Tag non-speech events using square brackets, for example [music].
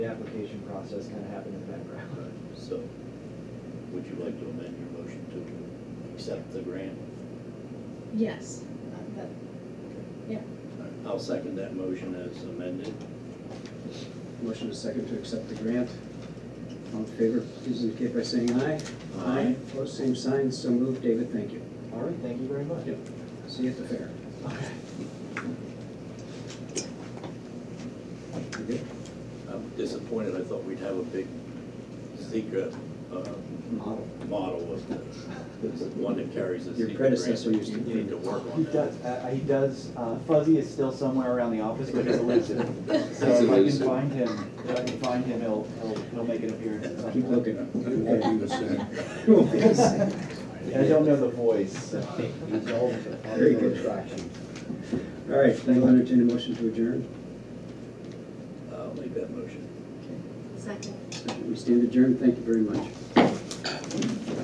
The application process kind of happened in the background. [laughs] So, would you like to amend your motion to accept the grant? Yes. I'll second that motion as amended. Motion is second to accept the grant. All in favor, please indicate by saying aye. Aye. Opposed, same sign, so moved. David, thank you. All right, thank you very much. Yep. See you at the fair. Okay. You good? I'm disappointed, I thought we'd have a big secret uh, Model. model of the, this is one that carries a Your secret grant. predecessor used to You do Need to work He on that. does, uh, he does, uh, Fuzzy is still somewhere around the office, but he's [laughs] elusive. So He's if I can elusive. find him, if I can find him, he'll, he'll, he'll make an appearance at some Keep point. looking. [laughs] I don't know the voice, so. Very good. [laughs] All right, then I'll entertain a motion to adjourn. I'll make that motion. Second. We stand adjourned. Thank you very much.